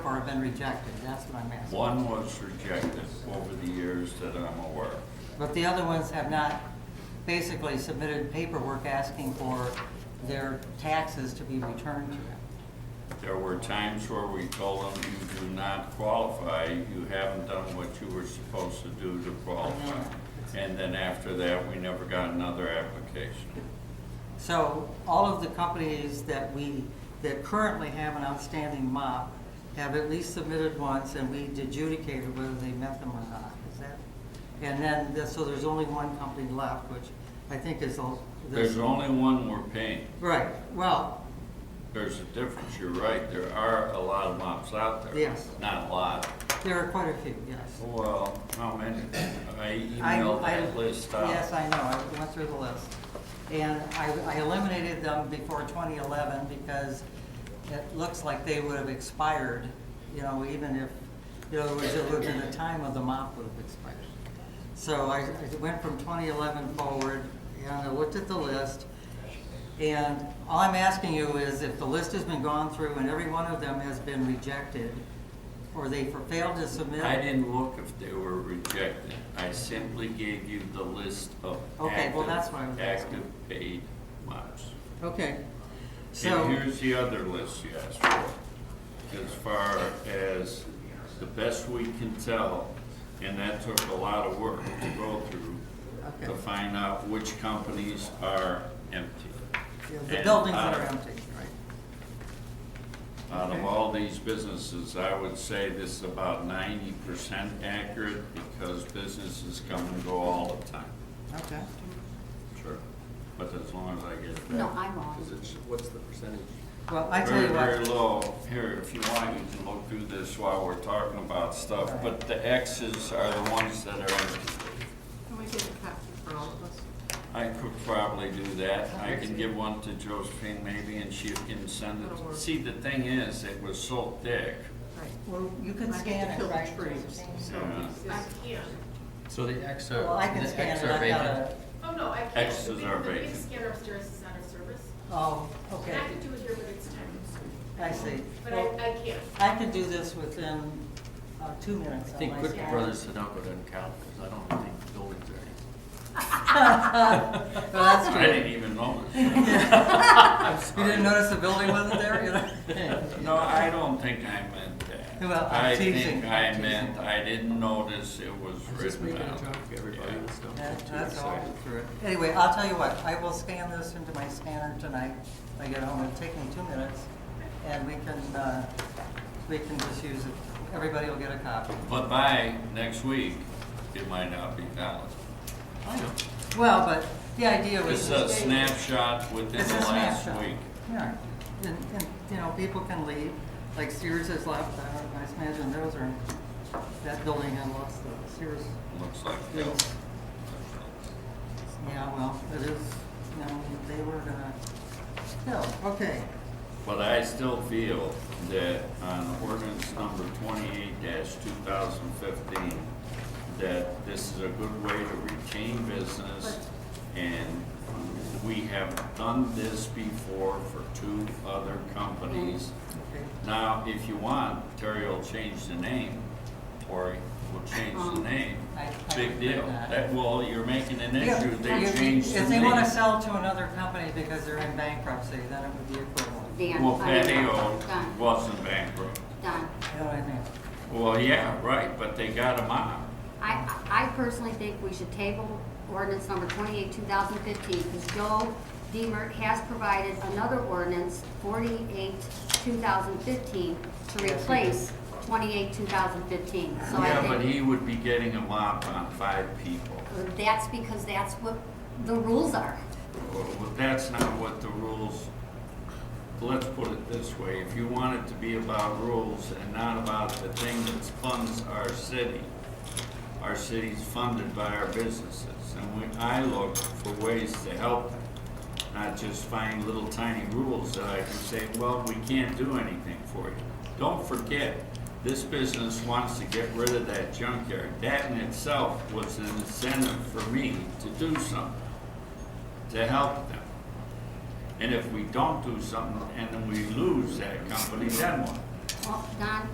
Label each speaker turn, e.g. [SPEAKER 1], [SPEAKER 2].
[SPEAKER 1] or have been rejected, that's what I'm asking.
[SPEAKER 2] One was rejected over the years that I'm aware. of.
[SPEAKER 1] But the other ones have not basically submitted paperwork asking for their taxes to be returned to them.
[SPEAKER 2] There were times where we told them, you do not qualify, you haven't done what you were supposed to do to qualify. And then after that, we never got another application.
[SPEAKER 1] So all of the companies that we, that currently have an outstanding MOP have at least submitted once and we adjudicated whether they met them or not, is that? And then, the- so there's only one company left, which I think is the.
[SPEAKER 2] There's only one we're paying.
[SPEAKER 1] Right, well,
[SPEAKER 2] There's a difference, you're right, there are a lot of mops out there.
[SPEAKER 1] Yes.
[SPEAKER 2] Not a lot.
[SPEAKER 1] there are quite a few, yes.
[SPEAKER 2] Well, how many? I
[SPEAKER 1] I-
[SPEAKER 2] emailed
[SPEAKER 1] I-
[SPEAKER 2] that list out.
[SPEAKER 1] Yes, I know, I went through the list. And I, I eliminated them before 2011 because it looks like they would have expired, you know, even if, you know, it was, it would have been the time of the mop would have expired. So I, I went from 2011 forward, and I looked at the list, and all I'm asking you is if the list has been gone through and every one of them has been rejected, or they failed to submit.
[SPEAKER 2] I didn't look if they were rejected. I simply gave you the list of
[SPEAKER 1] Okay, well, that's
[SPEAKER 2] active-
[SPEAKER 1] what I was asking.
[SPEAKER 2] active paid MOPS.
[SPEAKER 1] Okay, so.
[SPEAKER 2] And here's the other list you asked for, as far as the best we can tell, and that took a lot of work to go through
[SPEAKER 1] Okay.
[SPEAKER 2] to find out which companies are empty.
[SPEAKER 1] Yeah, The
[SPEAKER 2] And uh,
[SPEAKER 1] buildings that
[SPEAKER 2] out
[SPEAKER 1] are
[SPEAKER 2] of-
[SPEAKER 1] empty, right.
[SPEAKER 2] Out
[SPEAKER 1] Okay.
[SPEAKER 2] of all these businesses, I would say this is about ninety percent accurate because businesses come and go all the time.
[SPEAKER 1] Okay.
[SPEAKER 2] Sure. But as long as I get that.
[SPEAKER 3] No, I'm wrong.
[SPEAKER 4] Is it, what's the percentage?
[SPEAKER 1] Well, I tell you
[SPEAKER 2] Very, very
[SPEAKER 1] what,
[SPEAKER 2] low. Here, if you want, you can look through this while we're talking about stuff,
[SPEAKER 1] Right.
[SPEAKER 2] but the X's are the ones that are empty.
[SPEAKER 5] Can we get a copy for all of us?
[SPEAKER 2] I could probably do that. I can give one to Josephine maybe and she can send
[SPEAKER 5] That'll
[SPEAKER 2] it.
[SPEAKER 5] work.
[SPEAKER 2] See, the thing is, it was so thick.
[SPEAKER 5] Right.
[SPEAKER 1] well, you can
[SPEAKER 5] I get
[SPEAKER 1] scan
[SPEAKER 5] to
[SPEAKER 1] it,
[SPEAKER 5] fill the
[SPEAKER 1] right?
[SPEAKER 5] trees.
[SPEAKER 2] you know.
[SPEAKER 6] I can't.
[SPEAKER 4] So the X are,
[SPEAKER 1] Well, I can
[SPEAKER 4] the
[SPEAKER 1] scan
[SPEAKER 4] X
[SPEAKER 1] it,
[SPEAKER 4] are
[SPEAKER 1] I got
[SPEAKER 4] vacant.
[SPEAKER 1] a,
[SPEAKER 6] Oh, no, I can't.
[SPEAKER 2] X's
[SPEAKER 6] The big-
[SPEAKER 2] are
[SPEAKER 6] The big
[SPEAKER 2] vacant.
[SPEAKER 6] scanner upstairs is not in service.
[SPEAKER 1] oh,
[SPEAKER 6] And
[SPEAKER 1] okay,
[SPEAKER 6] I could do it here, but it's time consuming.
[SPEAKER 1] I see.
[SPEAKER 6] But I,
[SPEAKER 1] Well,
[SPEAKER 6] I can't.
[SPEAKER 1] I can do this within uh, two
[SPEAKER 4] I
[SPEAKER 1] minutes. on
[SPEAKER 4] think
[SPEAKER 1] my
[SPEAKER 4] Quick
[SPEAKER 1] side.
[SPEAKER 4] Brothers Sudoku doesn't count, because I don't think buildings are any.
[SPEAKER 1] Well, that's
[SPEAKER 2] I
[SPEAKER 1] true.
[SPEAKER 2] didn't even notice.
[SPEAKER 1] You didn't notice the building wasn't there, you know?
[SPEAKER 2] No, I don't think I meant that.
[SPEAKER 1] Well, I'm
[SPEAKER 2] I
[SPEAKER 1] teasing.
[SPEAKER 2] think I
[SPEAKER 1] I'm
[SPEAKER 2] meant,
[SPEAKER 1] teasing.
[SPEAKER 2] I didn't notice it was
[SPEAKER 4] I'm just
[SPEAKER 2] written
[SPEAKER 4] making a
[SPEAKER 2] down.
[SPEAKER 4] joke, everybody
[SPEAKER 2] Yeah.
[SPEAKER 4] was not
[SPEAKER 1] Yeah,
[SPEAKER 4] too
[SPEAKER 1] That's all
[SPEAKER 4] excited.
[SPEAKER 1] through it. Anyway, I'll tell you what, I will scan this into my scanner tonight when I get home. It'll take me two minutes, and we can, uh, we can just use it. Everybody will get a copy.
[SPEAKER 2] But by next week, it might not be valid.
[SPEAKER 4] I know.
[SPEAKER 1] Well, but the idea was.
[SPEAKER 2] It's a snapshot within
[SPEAKER 1] It's
[SPEAKER 2] the
[SPEAKER 1] a
[SPEAKER 2] last
[SPEAKER 1] snapshot.
[SPEAKER 2] week.
[SPEAKER 1] Yeah, and, and, you know, people can leave, like Sears has left, I don't- I imagine those are, that building had lost the Sears.
[SPEAKER 2] Looks like
[SPEAKER 1] Yeah.
[SPEAKER 2] that.
[SPEAKER 1] Yeah, well, it is, you know, they were gonna, no, okay,
[SPEAKER 2] But I still feel that on ordinance number twenty-eight two thousand fifteen, that this is a good way to retain business, and we have done this before for two other companies.
[SPEAKER 1] okay.
[SPEAKER 2] Now, if you want, Terry will change the name, Tori will change the name,
[SPEAKER 1] Oh, I- I
[SPEAKER 2] big deal.
[SPEAKER 1] agree with that.
[SPEAKER 2] That, well, you're making an
[SPEAKER 1] Yeah,
[SPEAKER 2] issue, they
[SPEAKER 1] if-
[SPEAKER 2] changed the name.
[SPEAKER 1] If they wanna sell to another company because they're in bankruptcy, then it would be equivalent, you
[SPEAKER 3] Dan.
[SPEAKER 2] Well,
[SPEAKER 3] I'm
[SPEAKER 2] Patio
[SPEAKER 3] Done,
[SPEAKER 2] wasn't bankrupt.
[SPEAKER 3] done.
[SPEAKER 1] know what I mean?
[SPEAKER 2] Well, yeah, right, but they got them out.
[SPEAKER 3] I, I personally think we should table ordinance number twenty-eight, two thousand fifteen, because Joe Deemer has provided another ordinance, forty-eight, two thousand fifteen, to
[SPEAKER 1] Yes, he
[SPEAKER 3] replace twenty-eight, two thousand fifteen. So I
[SPEAKER 2] Yeah,
[SPEAKER 3] think-
[SPEAKER 2] but he would be getting a mop on five people.
[SPEAKER 3] That's because that's what the rules are.
[SPEAKER 2] Well, that's not what the rules, let's put it this way, if you want it to be about rules and not about the thing that funds our city, our city's funded by our businesses, and when I look for ways to help them, not just find little tiny rules that I can say, well, we can't do anything for you. Don't forget, this business wants to get rid of that junkyard, that in itself was an incentive for me to do something to help them. And if we don't do something and then we lose that company, then what?
[SPEAKER 3] Well, Don,